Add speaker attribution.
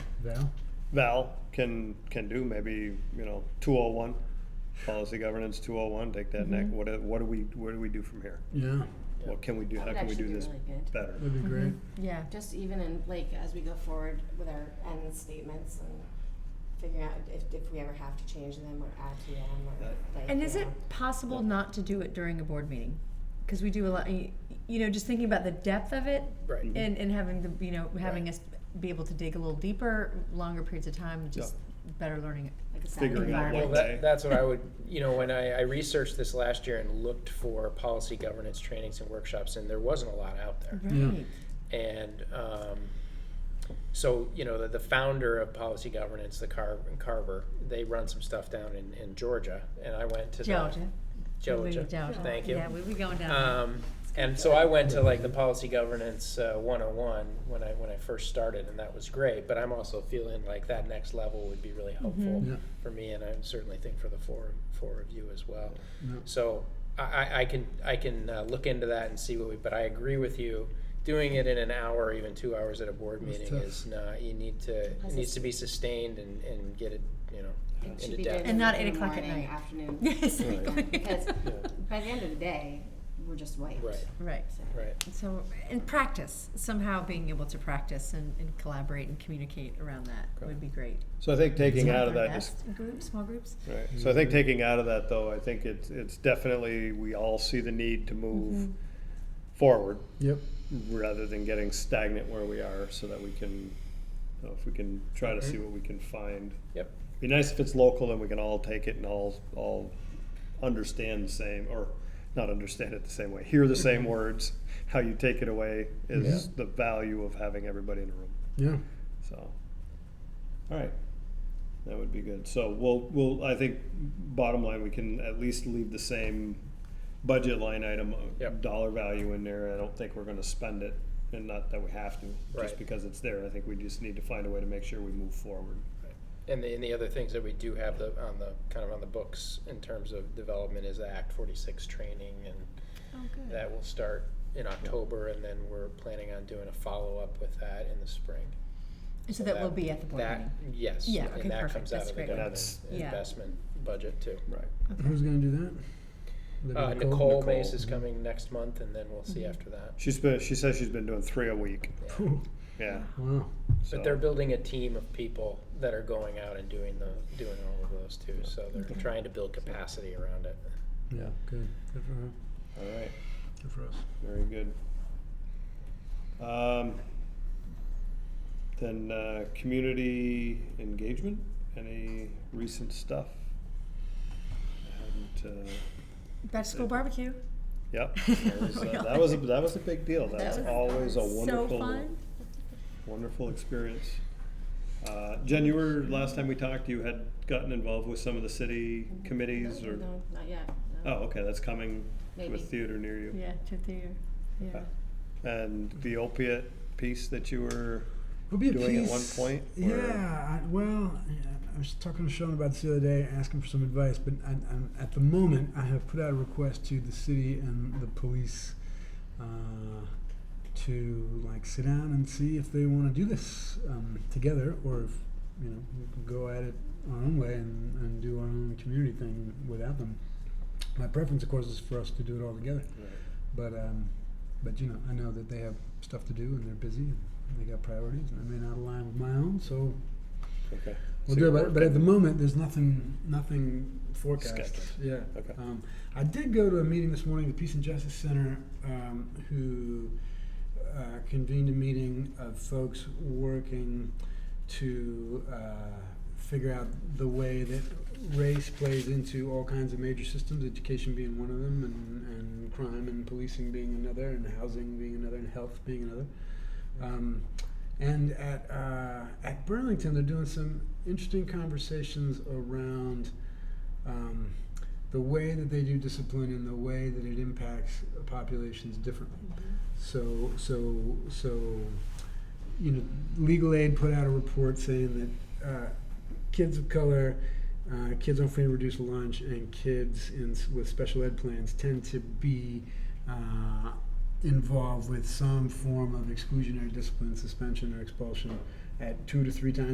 Speaker 1: Val?
Speaker 2: Val can, can do, maybe, you know, two oh one, policy governance two oh one, take that
Speaker 3: Mm-hmm.
Speaker 2: neck, what, do- what do we, what do we do from here?
Speaker 1: Yeah,
Speaker 2: What can we do, how
Speaker 3: That
Speaker 2: can we
Speaker 3: should
Speaker 2: do
Speaker 3: be
Speaker 2: this
Speaker 3: really good.
Speaker 2: better?
Speaker 1: that'd be great.
Speaker 4: Yeah.
Speaker 3: Just even in, like, as we go forward with our end statements and figuring out if, if we ever have to change them or add to them or like.
Speaker 4: And
Speaker 3: you
Speaker 4: is it
Speaker 3: know.
Speaker 4: possible not to do it during a board meeting? Because we do a lot, y- you know, just thinking about the depth of it
Speaker 5: Right.
Speaker 2: Mhm.
Speaker 4: and, and having the, you know, having us be able to dig a little deeper, longer periods of time, just better learning.
Speaker 3: Like a
Speaker 2: Figuring out
Speaker 5: Well,
Speaker 2: what
Speaker 3: Saturday.
Speaker 2: day.
Speaker 5: that, that's what I would, you know, when I, I researched this last year and looked for policy governance trainings and workshops, and there wasn't a lot out there.
Speaker 1: Yeah.
Speaker 4: Right.
Speaker 5: And um, so, you know, the, the founder of policy governance, the Car- Carver, they run some stuff down in, in Georgia, and I went to
Speaker 4: Georgia.
Speaker 5: the
Speaker 4: Maybe
Speaker 5: Georgia.
Speaker 4: Georgia.
Speaker 5: Thank you.
Speaker 4: Yeah, we we going down.
Speaker 5: Um, and so I went to like the policy governance uh, 101 when I when I first started, and that was great. But I'm also feeling like that next level would be really helpful
Speaker 4: Mhm.
Speaker 1: Yeah.
Speaker 5: for me, and I certainly think for the four four of you as well.
Speaker 1: Yeah.
Speaker 5: So I, I, I can I can uh, look into that and see what we. But I agree with you. Doing it in an hour, even two hours at a board
Speaker 1: That's
Speaker 5: meeting
Speaker 1: tough.
Speaker 5: is not. You need to. It
Speaker 3: Because
Speaker 5: needs to be sustained and, and get it. You know,
Speaker 3: It should
Speaker 5: into
Speaker 3: be done
Speaker 5: depth.
Speaker 4: And not
Speaker 3: in
Speaker 4: eight
Speaker 3: the
Speaker 4: o'clock at
Speaker 3: morning,
Speaker 4: night.
Speaker 3: Afternoon.
Speaker 4: Yeah,
Speaker 3: Yeah,
Speaker 4: exactly.
Speaker 3: Because by the end of the day, we're just wiped.
Speaker 5: Right.
Speaker 4: Right.
Speaker 3: So-
Speaker 5: Right.
Speaker 4: So, and practice, somehow being able to practice and, and collaborate and communicate around that would be great.
Speaker 2: So I think taking out of
Speaker 4: Smaller
Speaker 2: that, just
Speaker 4: desks, Groups, small groups?
Speaker 2: Right. So I think taking out of that though, I think it's it's definitely we all see the need to move
Speaker 3: Mm-hmm.
Speaker 2: forward
Speaker 1: Yep,
Speaker 2: rather than getting stagnant where we are, so that we can, you know, if we can try
Speaker 3: Mm-hmm.
Speaker 2: to see what we can find.
Speaker 5: Yep.
Speaker 2: Be nice if it's local and we can all take it and all all understand the same or not understand it the same way, hear the same words. How you take it away is the value of having everybody in a room.
Speaker 1: yeah.
Speaker 2: So, all right, that would be good. So we'll, we'll, I think, bottom line, we can at least leave the same budget line item, uh,
Speaker 5: Yep.
Speaker 2: dollar value in there. I don't think we're gonna spend it, and not that we have to, just
Speaker 5: Right.
Speaker 2: because it's there. I think we just need to find a way to make sure we move forward.
Speaker 5: And the, and the other things that we do have the, on the, kind of on the books in terms of development is the Act forty-six training and
Speaker 4: Oh, good.
Speaker 5: that will start in October and then we're planning on doing a follow-up with that in the spring.
Speaker 4: And so that will be at the board
Speaker 5: that-
Speaker 4: meeting.
Speaker 5: Yes.
Speaker 4: Yeah, okay,
Speaker 5: And that
Speaker 4: perfect.
Speaker 5: comes out
Speaker 4: That's
Speaker 5: of the
Speaker 4: great.
Speaker 5: government
Speaker 2: That's-
Speaker 4: Yeah.
Speaker 5: investment budget too.
Speaker 2: Right.
Speaker 1: Who's gonna do that? Would that be
Speaker 5: Uh, Nicole Mace
Speaker 2: Nicole.
Speaker 5: is coming next month and then we'll
Speaker 4: Mm-hmm.
Speaker 5: see after that.
Speaker 2: She's been, she says she's been doing three a week.
Speaker 5: Yeah.
Speaker 1: Phew,
Speaker 2: Yeah.
Speaker 1: Wow,
Speaker 2: so-
Speaker 5: But they're building a team of people that are going out and doing the, doing all of those too. So they're trying to build capacity around it.
Speaker 1: yeah, good, good for her,
Speaker 2: All right,
Speaker 1: good for us.
Speaker 2: very good. Um, then, uh, community engagement, any recent stuff? I hadn't, uh,
Speaker 4: Back to school barbecue.
Speaker 2: Yep. That was, uh, that was, a- that was a big deal. That's
Speaker 4: was
Speaker 2: always a
Speaker 4: So
Speaker 2: wonderful,
Speaker 4: fun.
Speaker 2: wonderful experience. Uh, Jen, you were, last time we talked, you had gotten involved with some of the city
Speaker 4: Mm-hmm.
Speaker 2: committees or,
Speaker 3: No, not yet, no.
Speaker 2: oh, okay, that's coming to a
Speaker 3: Maybe.
Speaker 2: theater near you.
Speaker 4: Yeah, to the, yeah.
Speaker 2: Okay. And the opiate piece that you were,
Speaker 1: Would be a
Speaker 2: doing at
Speaker 1: piece-
Speaker 2: one point, or-
Speaker 1: Yeah, I, well, yeah, I was talking to Sean about this the other day, asking for some advice. But I, I'm, at the moment, I have put out a request to the city and the police uh, to like sit down and see if they want to do this um, together, or if you know we can go at it our own way and, and do our own community thing without them. My preference, of course, is for us to do it all together. But um, but you know, I know that they have stuff to do and they're busy and they got priorities, and I may not align with my own, so
Speaker 2: okay.
Speaker 1: we'll
Speaker 2: So
Speaker 1: do
Speaker 2: you're
Speaker 1: it. But, but at the
Speaker 2: working-
Speaker 1: moment, there's nothing nothing forecast.
Speaker 2: Scheduled.
Speaker 1: Yeah.
Speaker 2: Okay.
Speaker 1: Um, I did go to a meeting this morning, the Peace and Justice Center, um, who uh, convened a meeting of folks working to uh, figure out the way that race plays into all kinds of major systems, education being one of them, and, and crime and policing being another, and housing being another, and health being another. Um, and at uh, at Burlington, they're doing some interesting conversations around um, the way that they do discipline and the way that it impacts populations differently. So so so, you know, legal aid put out a report saying that uh, kids of color. Uh, kids on free and reduced lunch and kids in, s- with special ed plans tend to be uh, involved with some form of exclusionary discipline, suspension, or expulsion at two to three times